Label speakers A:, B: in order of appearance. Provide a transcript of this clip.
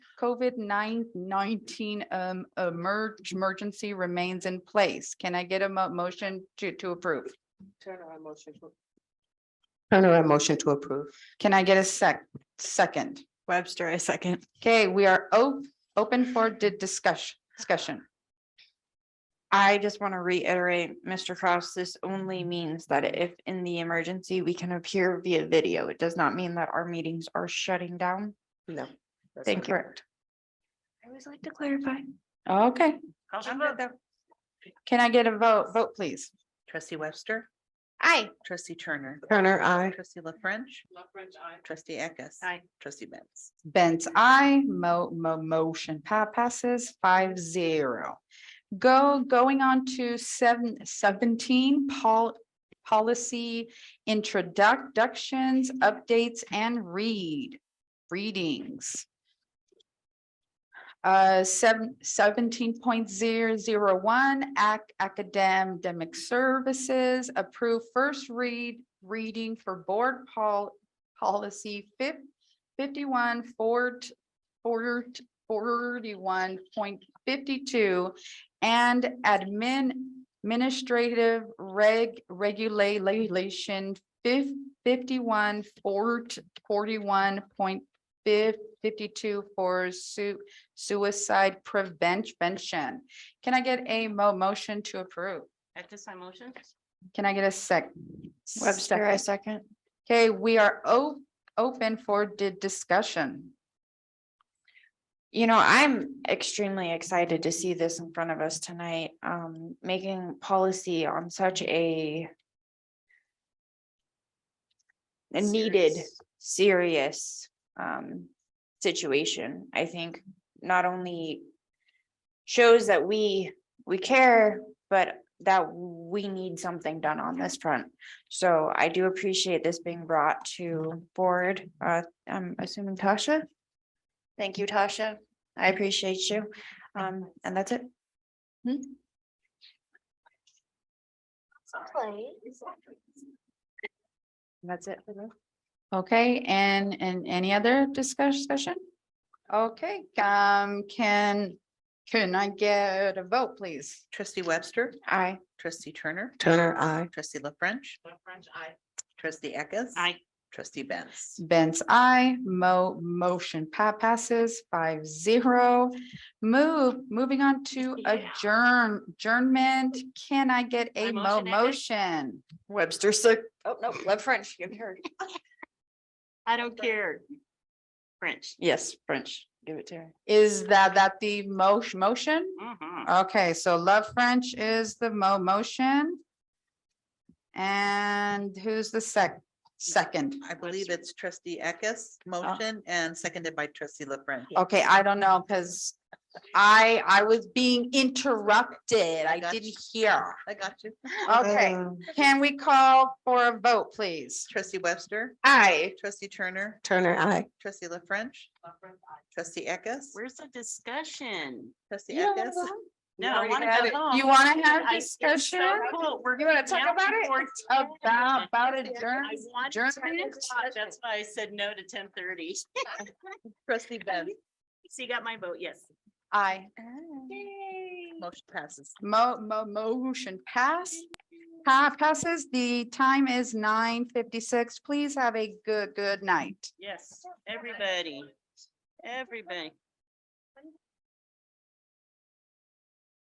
A: COVID nine nineteen um emerge emergency remains in place. Can I get a mo- motion to to approve?
B: Turner, I motion to. Turner, I motion to approve.
A: Can I get a sec- second?
C: Webster, I second.
A: Okay, we are o- open for di- discussion, discussion.
C: I just want to reiterate, Mr. Kraus, this only means that if in the emergency, we can appear via video. It does not mean that our meetings are shutting down.
B: No.
C: Thank you. I always like to clarify.
A: Okay, can I get a vote, vote please?
D: Trustee Webster,
C: Aye.
D: trustee Turner,
B: Turner, I.
D: trustee La French. La French, I. Trustee Eckes.
C: Aye.
D: Trustee Benz.
A: Benz, I, mo- mo- motion pa- passes five zero. Go, going on to seven seventeen, pol- policy introductions, updates and read, readings. Uh, seven, seventeen point zero zero one, ac- academic services, approve first read, reading for board pol- policy fif- fifty-one, fort, fort, forty-one point fifty-two. And admin, administrative reg, regulate, regulation fif, fifty-one, fort, forty-one point fif, fifty-two for su- suicide prevention. Can I get a mo- motion to approve?
E: At this time, motion?
A: Can I get a sec?
C: Webster, I second.
A: Okay, we are o- open for di- discussion.
C: You know, I'm extremely excited to see this in front of us tonight, um, making policy on such a a needed, serious, um, situation, I think not only shows that we, we care, but that we need something done on this front. So I do appreciate this being brought to board, uh, I'm assuming Tasha? Thank you, Tasha. I appreciate you. Um, and that's it. Hmm? That's it. for me.
A: Okay, and, and any other discuss- discussion? Okay, um, can, can I get a vote, please?
D: Trustee Webster,
C: Aye.
D: trustee Turner,
B: Turner, I.
D: trustee La French,
E: French, aye.
D: trustee Eckes.
E: Aye.
D: Trustee Benz.
A: Benz, I, mo- motion pa- passes five zero. Move, moving on to
E: Yeah.
A: adjourn, adjournment. Can I get a
E: I
A: mo-
E: motion it.
A: motion?
C: Webster, so, oh, no, love French, give her.
E: I don't care. French.
C: Yes, French, give it to her.
A: Is that, that the mo- motion?
E: Mhm.
A: Okay, so Love French is the mo- motion. And who's the sec- second?
D: I believe it's trustee Eckes motion and seconded by trustee La French.
A: Okay, I don't know, because I, I was being interrupted. I
D: got
A: didn't
D: you.
A: hear.
D: I got you.
A: Okay,
B: Mm. Um,
A: can we call for a vote, please?
D: Trustee Webster,
C: Aye.
D: trustee Turner,
B: Turner, I.
D: trustee La French. Trustee Eckes.
E: Where's the discussion?
D: Trustee
A: You don't
D: Eckes.
A: wanna vote?
E: No, I
D: already
E: wanna
D: had
E: go
D: it.
E: home.
A: You wanna have
E: I- it's so
A: discussion?
E: cool. We're
A: You wanna
E: gonna
A: talk about it? About, about adjourn, adjournment?
E: That's why I said no to ten thirty.
D: Trustee Benz,
E: So you got my vote, yes.
A: Aye.
D: motion passes.
A: Mo- mo- motion pass. Pa- passes. The time is nine fifty-six. Please have a good, good night.
E: Yes, everybody, everybody.